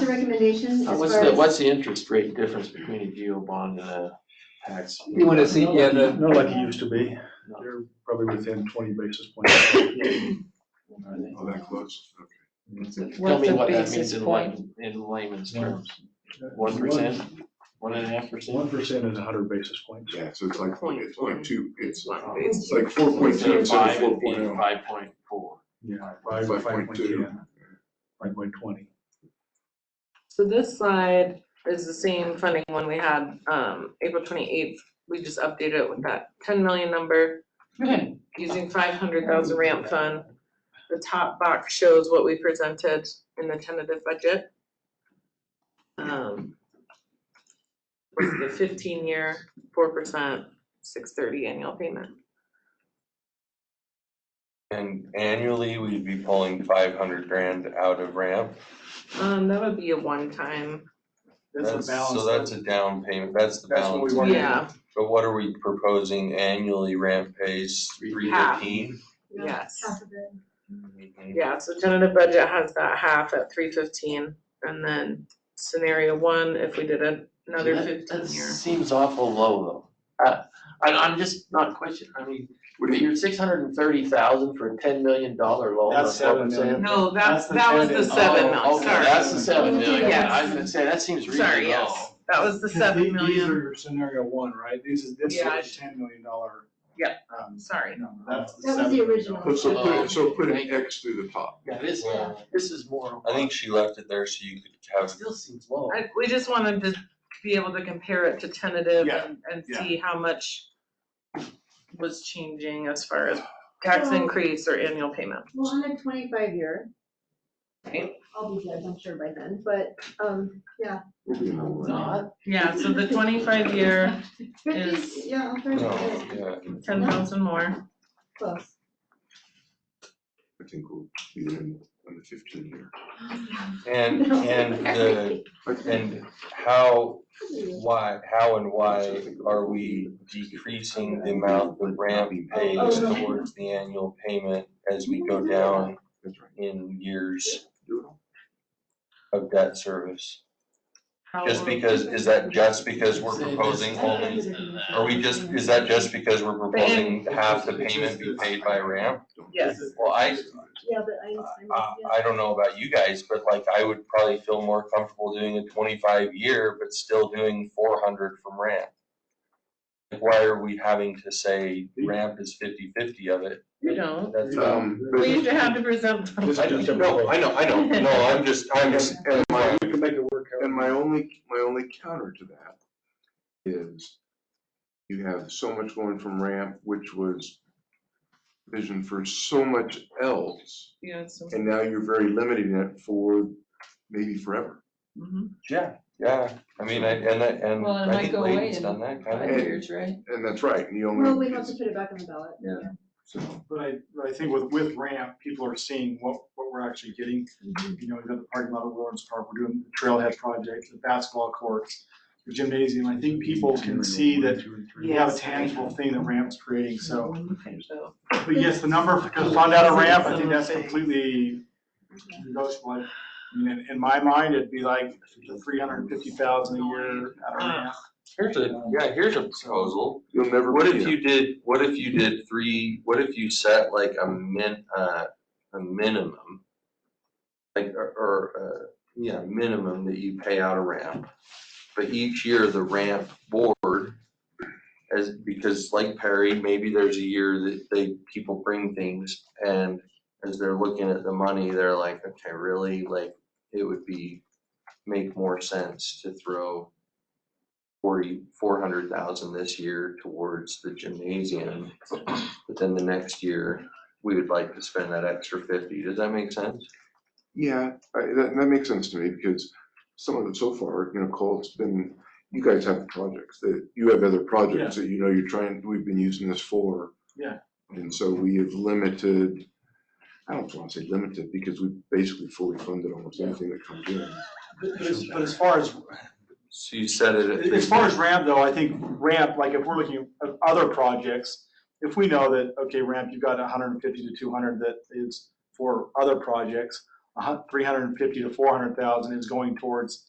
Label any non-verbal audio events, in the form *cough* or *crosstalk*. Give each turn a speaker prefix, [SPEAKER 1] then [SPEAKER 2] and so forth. [SPEAKER 1] the recommendation
[SPEAKER 2] Uh,
[SPEAKER 1] as
[SPEAKER 2] What's
[SPEAKER 1] far
[SPEAKER 2] the,
[SPEAKER 1] as,
[SPEAKER 2] what's the interest rate difference between a geo bond and a tax?
[SPEAKER 3] You wanna see, yeah, the,
[SPEAKER 4] Not like it used to be, they're probably within twenty basis points.
[SPEAKER 5] Oh, that close, okay.
[SPEAKER 2] Tell
[SPEAKER 6] What's
[SPEAKER 2] me
[SPEAKER 6] the
[SPEAKER 2] what that means
[SPEAKER 6] basis
[SPEAKER 2] in
[SPEAKER 6] point?
[SPEAKER 2] layman, in layman's terms. One percent, one and a half percent?
[SPEAKER 4] One percent is hundred basis points.
[SPEAKER 5] Yeah, so it's like, it's like two, it's,
[SPEAKER 2] Like,
[SPEAKER 5] it's like four point two instead of
[SPEAKER 2] Five,
[SPEAKER 5] four
[SPEAKER 2] it'd
[SPEAKER 5] point
[SPEAKER 2] be
[SPEAKER 5] oh.
[SPEAKER 2] five point four.
[SPEAKER 4] Yeah.
[SPEAKER 5] Five point two.
[SPEAKER 4] Five point twenty.
[SPEAKER 6] So this slide is the same funding one we had, um, April twenty-eighth, we just updated it with that ten million number. Hmm,
[SPEAKER 2] Okay.
[SPEAKER 6] Using five hundred thousand ramp fund, the top box shows what we presented in the tentative budget. Um. Was the fifteen-year, four percent, six thirty annual payment,
[SPEAKER 7] And annually, we'd be pulling five hundred grand out of ramp.
[SPEAKER 6] um, that would be a one-time,
[SPEAKER 7] That's- So that's a down payment, that's the
[SPEAKER 3] That's what we
[SPEAKER 7] balance.
[SPEAKER 3] wanted.
[SPEAKER 6] yeah,
[SPEAKER 7] But what are we proposing annually ramp pays three
[SPEAKER 6] Half.
[SPEAKER 7] fifteen?
[SPEAKER 6] yes.
[SPEAKER 1] half of it,
[SPEAKER 6] Yeah, so tentative budget has that half at three fifteen, and then scenario one, if we did a- another
[SPEAKER 2] That
[SPEAKER 6] fifteen year.
[SPEAKER 2] seems awful low though. Uh, I, I'm just not questioning, I mean,
[SPEAKER 5] What do you,
[SPEAKER 2] you're six hundred and thirty thousand for a ten million dollar loan.
[SPEAKER 3] That's
[SPEAKER 2] that's what I'm
[SPEAKER 3] seven million.
[SPEAKER 2] saying.
[SPEAKER 6] No,
[SPEAKER 3] That's the
[SPEAKER 6] that, that was the
[SPEAKER 3] tentative.
[SPEAKER 6] seven
[SPEAKER 2] Oh,
[SPEAKER 6] million,
[SPEAKER 2] okay,
[SPEAKER 6] sorry,
[SPEAKER 2] that's the seven million.
[SPEAKER 6] Yes.
[SPEAKER 2] I was gonna say, that seems
[SPEAKER 6] sorry,
[SPEAKER 2] really low.
[SPEAKER 6] yes, that was the seven
[SPEAKER 3] These are
[SPEAKER 6] million,
[SPEAKER 3] your scenario one, right? This is, this is
[SPEAKER 6] Yeah.
[SPEAKER 3] the ten million dollar.
[SPEAKER 6] Yep.
[SPEAKER 3] Um,
[SPEAKER 6] sorry.
[SPEAKER 3] no, that's the
[SPEAKER 1] That was the
[SPEAKER 3] $7 million.
[SPEAKER 1] original.
[SPEAKER 5] so put, it- so put
[SPEAKER 2] Thank
[SPEAKER 5] an
[SPEAKER 2] you.
[SPEAKER 5] X through the top.
[SPEAKER 2] Yeah, this,
[SPEAKER 7] Yeah.
[SPEAKER 2] this is more.
[SPEAKER 7] I think she left it there so you could
[SPEAKER 2] It
[SPEAKER 7] have,
[SPEAKER 2] still seems low.
[SPEAKER 6] I, we just wanted to be able to compare it to tentative
[SPEAKER 3] Yeah,
[SPEAKER 6] and, and
[SPEAKER 3] yeah.
[SPEAKER 6] see how much was changing as far as tax increase or annual payment.
[SPEAKER 1] well, on a twenty-five year.
[SPEAKER 6] Right.
[SPEAKER 1] I'll be dead, I'm sure by then, but, um, yeah.
[SPEAKER 2] Not,
[SPEAKER 6] Yeah, so the twenty-five year, Is-
[SPEAKER 1] Fifty, yeah, I'm trying
[SPEAKER 7] no,
[SPEAKER 1] to,
[SPEAKER 7] yeah.
[SPEAKER 6] ten thousand more,
[SPEAKER 1] close.
[SPEAKER 5] I think we'll be in, on the fifteen year.
[SPEAKER 1] *laughs*
[SPEAKER 7] And,
[SPEAKER 6] *laughs*
[SPEAKER 7] and the, and how, why, how and why are we decreasing the amount that ramp
[SPEAKER 6] Oh,
[SPEAKER 7] pays towards the annual payment as we go down
[SPEAKER 5] That's right.
[SPEAKER 7] in years
[SPEAKER 5] Do it all.
[SPEAKER 7] of debt service?
[SPEAKER 6] how
[SPEAKER 7] Just
[SPEAKER 6] will-
[SPEAKER 7] because, is that just because we're
[SPEAKER 2] Say this.
[SPEAKER 7] proposing only,
[SPEAKER 2] that.
[SPEAKER 7] are we just, is that just because we're proposing half the payment be paid by ramp?
[SPEAKER 5] Don't-
[SPEAKER 6] Yes.
[SPEAKER 7] Well, I,
[SPEAKER 1] Yeah, but I,
[SPEAKER 7] uh,
[SPEAKER 1] I'm, yeah.
[SPEAKER 7] I don't know about you guys, but like I would probably feel more comfortable doing a twenty-five year, but still doing four hundred from ramp. Like, Why are we having to say ramp is 50-50 of it?
[SPEAKER 6] You don't.
[SPEAKER 7] That's, um,
[SPEAKER 5] Um,
[SPEAKER 6] We
[SPEAKER 5] but
[SPEAKER 6] used to have to present them.
[SPEAKER 4] This
[SPEAKER 7] I
[SPEAKER 4] is just a
[SPEAKER 7] don't, no, I know, I know, no, I'm just, I'm just,
[SPEAKER 5] and my,
[SPEAKER 3] We can make it work. however.
[SPEAKER 5] And my only, my only counter to that is you have so much going from ramp, which was vision for so much else,
[SPEAKER 6] Yeah, so-
[SPEAKER 5] and now you're very limiting it for maybe forever.
[SPEAKER 6] Mhm.
[SPEAKER 7] yeah, yeah, I mean, I, and I, and
[SPEAKER 8] Well, it
[SPEAKER 7] I
[SPEAKER 8] might
[SPEAKER 7] think
[SPEAKER 8] go away
[SPEAKER 7] Layton's
[SPEAKER 8] in
[SPEAKER 7] done that kind of.
[SPEAKER 8] Five
[SPEAKER 5] And-
[SPEAKER 8] years, right?
[SPEAKER 5] And that's right, and you only.
[SPEAKER 1] Well, we have to put it back on the ballot.
[SPEAKER 8] Yeah.
[SPEAKER 5] So,
[SPEAKER 3] But I, but I think with, with ramp, people are seeing what, what we're actually getting.
[SPEAKER 1] Mm-hmm.
[SPEAKER 3] You know, we've got the parking lot at Lawrence Park, we're doing the trailhead project, the basketball courts, the gymnasium. I think people can see that we have a tangible thing that ramp's creating, so.
[SPEAKER 6] Oh, So,
[SPEAKER 3] But yes, the number for to fund out a ramp, I think that's completely negotiable. I mean, in, in my mind, it'd be like three hundred and fifty thousand a year at a ramp.
[SPEAKER 7] Here's a, yeah, here's a proposal.
[SPEAKER 5] You'll never.
[SPEAKER 7] What
[SPEAKER 5] be
[SPEAKER 7] if
[SPEAKER 5] a-
[SPEAKER 7] you did, what if you did three, what if you set like a min, uh, a minimum? Like, or, or, uh, yeah, minimum that you pay out a ramp, but each year the ramp board. As, because like Perry, maybe there's a year that they, people bring things and as they're looking at the money, they're like, okay, really, like, it would be. Make more sense to throw forty, four hundred thousand this year towards the gymnasium. But then the next year, we would like to spend that extra fifty. Does that make sense?
[SPEAKER 5] Yeah, I, that, that makes sense to me, because some of it so far, you know, Cole's been, you guys have projects, that, you have other projects that you know you're trying, we've been using this for.
[SPEAKER 4] Yeah.
[SPEAKER 5] And so we have limited, I don't wanna say limited, because we basically fully funded almost anything that comes in.
[SPEAKER 4] But as- but as far as
[SPEAKER 7] So you set it at three.
[SPEAKER 4] As far as ramp though, I think ramp, like if we're looking at other projects, if we know that, okay, ramp, you've got hundred and fifty to two hundred that is for other projects,
[SPEAKER 3] three hundred and fifty to four hundred thousand is going towards